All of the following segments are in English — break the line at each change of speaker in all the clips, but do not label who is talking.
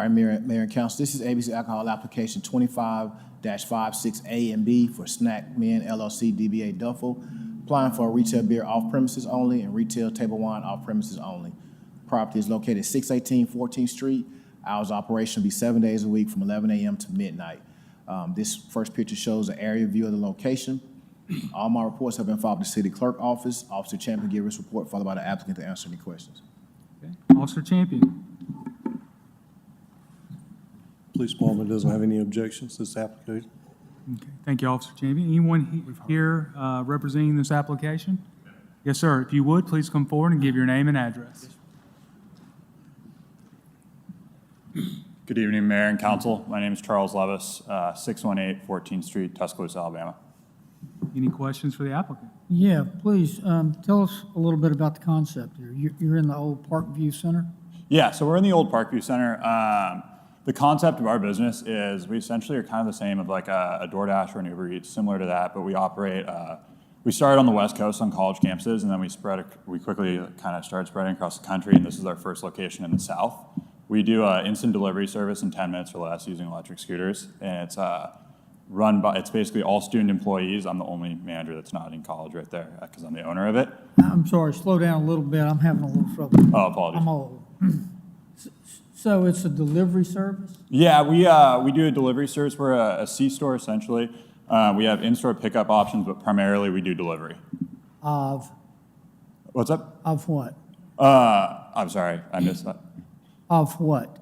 All right, Mayor, Mayor and Council, this is ABC Alcohol Application twenty-five 56 A and B for Snack Men LLC DBA Duffel, applying for a retail beer off premises only and retail table wine off premises only. Property is located 618 14th Street. Hours of operation will be seven days a week from eleven AM to midnight. Um, this first picture shows an area view of the location. All my reports have been filed with the city clerk office. Officer Champion will give his report, followed by the applicant to answer any questions.
Okay. Officer Champion.
Police department doesn't have any objections to this application.
Okay. Thank you, Officer Champion. Anyone he- here uh, representing this application? Yes, sir. If you would, please come forward and give your name and address.
Good evening, Mayor and Council. My name is Charles Levis, uh, 618 14th Street, Tuscaloosa, Alabama.
Any questions for the applicant?
Yeah, please, um, tell us a little bit about the concept here. You're, you're in the old Parkview Center?
Yeah, so we're in the old Parkview Center. Um, the concept of our business is we essentially are kind of the same of like a, a DoorDash or an Uber Eats, similar to that, but we operate. Uh, we started on the West Coast on college campuses, and then we spread. We quickly kind of started spreading across the country, and this is our first location in the South. We do uh, instant delivery service in 10 minutes or less using electric scooters, and it's uh, run by. It's basically all student employees. I'm the only manager that's not in college right there because I'm the owner of it.
I'm sorry, slow down a little bit, I'm having a little trouble.
Oh, apologies.
I'm old. So it's a delivery service?
Yeah, we uh, we do a delivery service. We're a, a C store essentially. Uh, we have in-store pickup options, but primarily we do delivery.
Of,
What's up?
of what?
Uh, I'm sorry, I missed that.
Of what?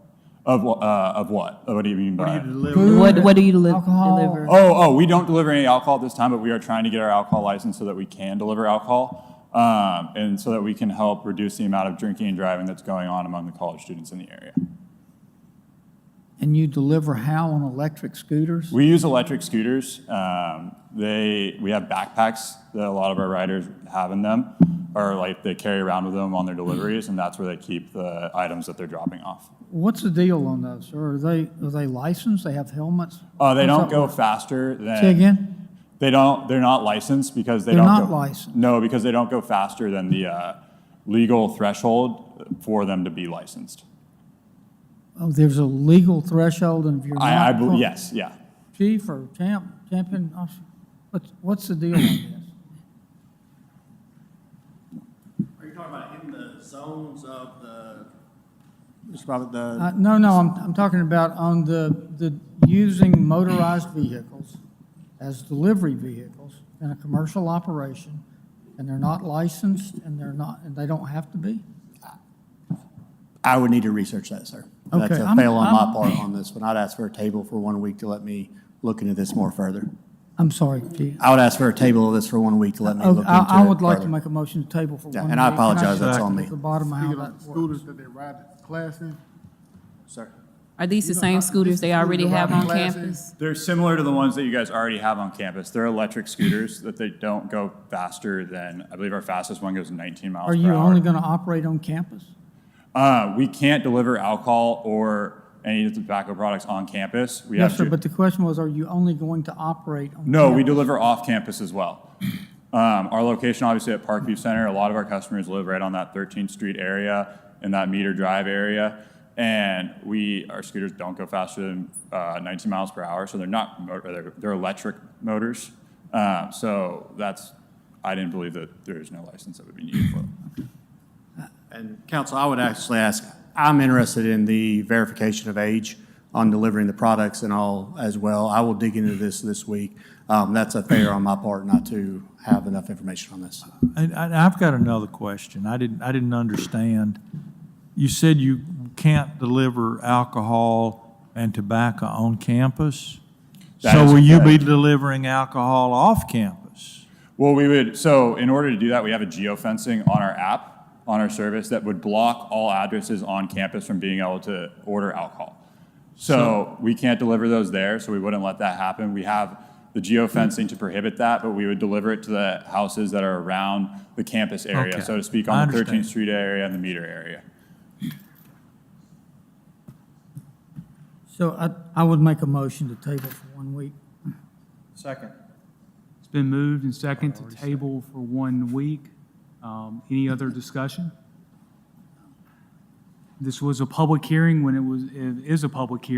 Of wha- uh, of what? What do you mean by?
What, what do you deli-
Alcohol.
deliver?
Oh, oh, we don't deliver any alcohol at this time, but we are trying to get our alcohol license so that we can deliver alcohol, um, and so that we can help reduce the amount of drinking and driving that's going on among the college students in the area.
And you deliver how on electric scooters?
We use electric scooters. Um, they we have backpacks that a lot of our riders have in them, or like they carry around with them on their deliveries, and that's where they keep the items that they're dropping off.
What's the deal on those? Or Are they, are they licensed? They have helmets?
Uh, they
How's
don't
that
go
work?
faster than.
Say again?
They don't. They're not licensed because they
They're
don't.
not
go,
licensed.
No, because they don't go faster than the uh, legal threshold for them to be licensed.
Oh, there's a legal threshold and if you're not.
I, I bel
from-
yes, yeah.
Chief or champ, champion, officer, what's, what's the deal on this?
Are you talking about in the zones of the? Mr. Bobbitt, the,
Uh, No, no, I'm, I'm talking about on the, the using motorized vehicles as delivery vehicles in a commercial operation, and they're not licensed, and they're not, and they don't have to be?
I would need to research that, sir. That's
Okay,
a
I'm-
fail on my
I'm-
part on this one. I'd ask for a table for one week to let me look into this more further.
I'm sorry, Chief.
I would ask for a table of this for one week to let me
Oh,
look into it
I, I would like to
further.
make a motion to table for one
Yeah,
week.
and I
Can
apologize, that's
check
on me.
The bottom of how
Speaking
that
of
works.
scooters that they ride to class in,
Sir.
Are these the same scooters they already have on campus?
They're similar to the ones that you guys already have on campus. They're electric scooters that they don't go faster than, I believe our fastest one goes 19 miles
Are
per
you
hour.
only gonna operate on campus?
uh, we can't deliver alcohol or any of the tobacco products on campus. We
Yes,
have
sir,
to,
but the question was, are you only going to operate on?
no, we
campus?
deliver off campus as well. Um, our location, obviously, at Parkview Center, a lot of our customers live right on that 13th Street area in that meter drive area. And we, our scooters don't go faster than uh, 19 miles per hour, so they're not, mo- they're, they're electric motors. Uh, so that's, I didn't believe that there is no license that would be needed for them.
And council, I would actually ask, I'm interested in the verification of age on delivering the products and all as well. I will dig into this this week. Um, that's a fair on my part not to have enough information on this.
And and I've got another question. I didn't, I didn't understand. You said you can't deliver alcohol and tobacco on campus?
That
So
is
will you be
correct.
delivering alcohol off campus?
Well, we would, so in order to do that, we have a geofencing on our app, on our service, that would block all addresses on campus from being able to order alcohol. So we can't deliver those there, so we wouldn't let that happen. We have the geofencing to prohibit that, but we would deliver it to the houses that are around the campus area,
Okay.
so to speak,
I
on the
understand.
13th Street area and the meter area.
So I, I would make a motion to table for one week.
Second.
It's been moved and second to table for one week. Um, Any other discussion? This was a public hearing when it was, it is a public hearing.